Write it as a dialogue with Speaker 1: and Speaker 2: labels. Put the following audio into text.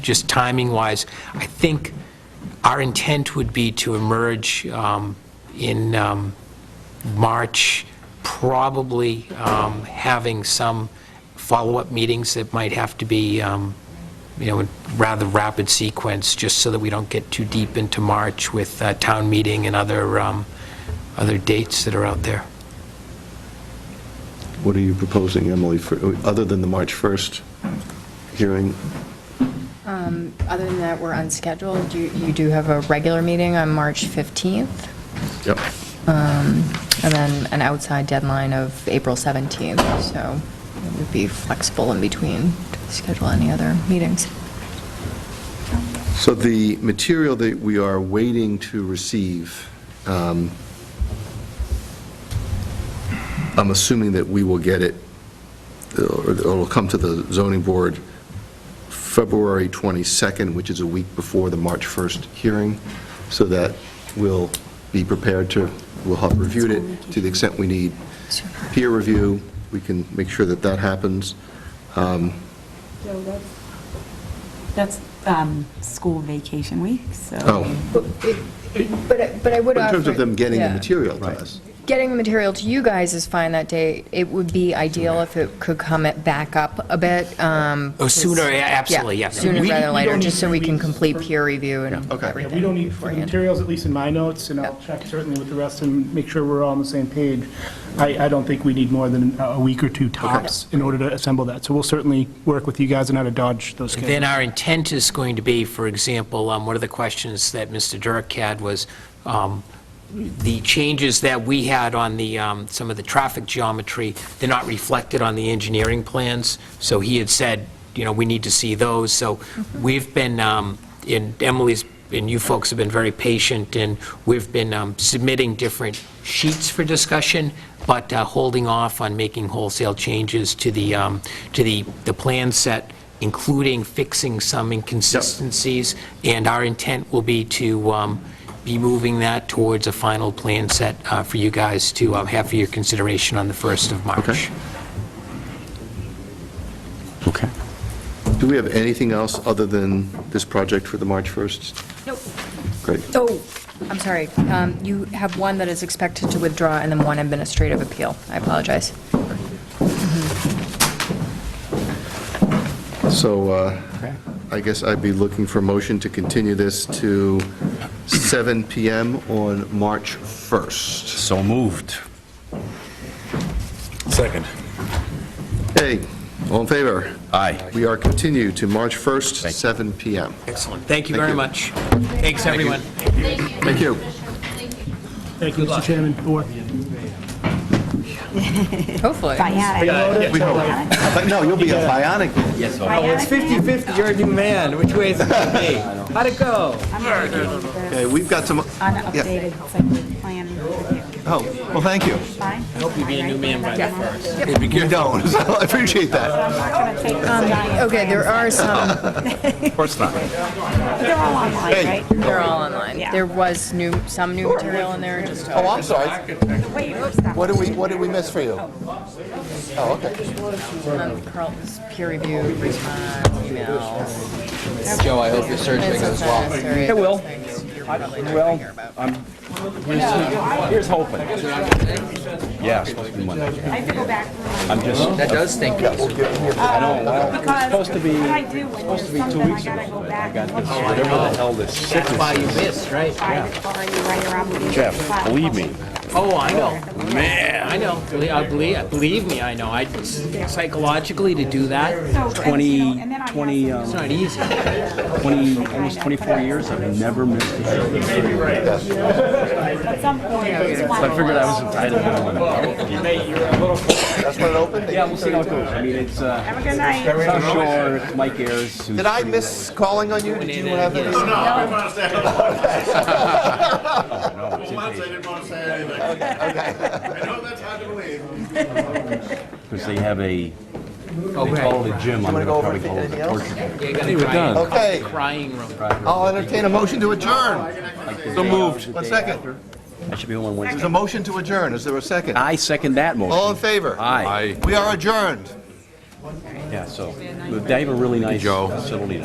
Speaker 1: Just timing-wise, I think our intent would be to emerge um, in um, March, probably um, having some follow-up meetings that might have to be, um, you know, in rather rapid sequence, just so that we don't get too deep into March with uh, town meeting and other, um, other dates that are out there.
Speaker 2: What are you proposing, Emily, for, other than the March 1st hearing?
Speaker 3: Um, Other than that, we're unscheduled. You you do have a regular meeting on March 15th,
Speaker 2: Yep.
Speaker 3: and then an outside deadline of April 17th, so it would be flexible in between to schedule any other meetings.
Speaker 2: So the material that we are waiting to receive, um, I'm assuming that we will get it, or it'll come to the zoning board February 22nd, which is a week before the March 1st hearing, so that we'll be prepared to, we'll have reviewed it to the extent we need peer review, we can make sure that that happens. Um,
Speaker 4: That's um, school vacation week, so.
Speaker 2: Oh.
Speaker 3: But I- but I would
Speaker 2: But in
Speaker 3: offer...
Speaker 2: terms of them getting the
Speaker 3: Yeah.
Speaker 2: material to us.
Speaker 3: Getting the material to you guys is fine that day. It would be ideal if it could come it back up a bit. um,
Speaker 1: Oh, sooner,
Speaker 3: because-
Speaker 1: yeah, absolutely,
Speaker 3: yeah,
Speaker 1: yes.
Speaker 3: Sooner
Speaker 5: We-
Speaker 3: rather than
Speaker 5: we
Speaker 3: later,
Speaker 5: don't
Speaker 3: just
Speaker 5: need
Speaker 3: so we
Speaker 5: three
Speaker 3: can
Speaker 5: weeks
Speaker 3: complete
Speaker 5: for-
Speaker 3: peer review and
Speaker 2: okay. Yeah, we
Speaker 3: everything.
Speaker 5: Yeah, we don't need, for the
Speaker 3: beforehand.
Speaker 5: materials, at least in my notes, and I'll check certainly with the rest and make sure we're all on the same page. I, I don't think we need more than a week or two tops in order to assemble that. So we'll certainly work with you guys on how to dodge those
Speaker 1: Then
Speaker 5: schedules.
Speaker 1: our intent is going to be, for example, um, one of the questions that Mr. Dirk had was um, the changes that we had on the, um, some of the traffic geometry, they're not reflected on the engineering plans. So he had said, you know, we need to see those. So we've been, um, and Emily's, and you folks have been very patient, and we've been um, submitting different sheets for discussion, but uh, holding off on making wholesale changes to the, um, to the, the plan set including fixing some inconsistencies, and our intent will be to um, be moving that towards a final plan set uh, for you guys to uh, have for your consideration on the 1st of March.
Speaker 6: Okay.
Speaker 2: Do we have anything else other than this project for the March 1st?
Speaker 3: Nope.
Speaker 2: Great.
Speaker 3: Oh, I'm sorry. Um, You have one that is expected to withdraw and then one administrative appeal. I apologize.
Speaker 2: So uh, I guess I'd be looking for a motion to continue this to 7 PM on March 1st.
Speaker 6: So moved. Second.
Speaker 2: Hey, all in favor?
Speaker 6: Aye.
Speaker 2: We are continued to March 1st,
Speaker 6: Thank you.
Speaker 2: 7 PM.
Speaker 1: Excellent. Thank you
Speaker 2: Thank
Speaker 1: very
Speaker 2: you.
Speaker 1: much. Thanks, everyone.
Speaker 2: Thank you.
Speaker 5: Thank you, Mr. Chairman. Or-
Speaker 3: Hopefully.
Speaker 2: We hope. But No, you'll be a bionic man.
Speaker 7: Oh, It's 50/50, you're a new man, which way is it gonna be? How'd it go?
Speaker 2: Okay, we've got some,
Speaker 4: Unupdated cyclic plan review.
Speaker 2: oh, well, thank you.
Speaker 4: Fine? I hope you be a new man by the first.
Speaker 2: You don't, so I appreciate that.
Speaker 4: I'm not gonna take the giant.
Speaker 3: Okay, there are some,
Speaker 6: Of course not.
Speaker 4: They're all online,
Speaker 2: Hey.
Speaker 4: right?
Speaker 3: they're all online. There was new, some new material in there, just
Speaker 2: Oh, I'm sorry.
Speaker 4: Wait, what's that?
Speaker 2: What did we, what did we miss for you? Oh, okay.
Speaker 3: um, Carlton's peer review response, emails.
Speaker 7: Joe, I hope your surgery
Speaker 3: It's unnecessary.
Speaker 7: It will. Well,
Speaker 6: Here's hoping. Yeah, it's supposed to be Monday.
Speaker 4: I have to go back.
Speaker 6: I'm just,
Speaker 7: that does stink.
Speaker 4: I don't Because supposed to be, what I do when there's something, I gotta go back. and look at it.
Speaker 7: That's why you missed, right?
Speaker 4: I just thought I'd be right around when you get the
Speaker 6: Jeff,
Speaker 4: file.
Speaker 6: believe me,
Speaker 7: Oh, I know. Man. I know. Believe- I Believe, uh, believe me, I know. I Psychologically, to do that,
Speaker 4: So, and, you know,
Speaker 8: 20,
Speaker 4: and then I have
Speaker 8: 20,
Speaker 4: some-
Speaker 8: um,
Speaker 7: it's not easy.
Speaker 8: 20, almost 24 years, I've never missed a show.
Speaker 4: At some point, it's
Speaker 8: So I
Speaker 4: one
Speaker 8: figured I
Speaker 4: of those.
Speaker 8: was entitled to one.
Speaker 2: That's when it opened?
Speaker 8: Yeah, we'll see how it goes. I mean, it's, uh,
Speaker 4: Have a good night.
Speaker 8: it's not sure, it's Mike Ayers, who's...
Speaker 2: Did I miss calling on you? Did you have any? No, no.
Speaker 6: because they have a, they call it a gym, I'm gonna probably call it a torture gym. We're done.
Speaker 2: Okay,
Speaker 7: Crying room.
Speaker 2: I'll entertain a motion to adjourn.
Speaker 6: So moved.
Speaker 2: One second.
Speaker 8: I should be home on
Speaker 2: There's
Speaker 8: Wednesday.
Speaker 2: a motion to adjourn. Is there a second?
Speaker 8: I second that
Speaker 2: All
Speaker 8: motion.
Speaker 2: in favor?
Speaker 8: Aye.
Speaker 2: We are adjourned.
Speaker 8: Yeah, so, they have a really nice facility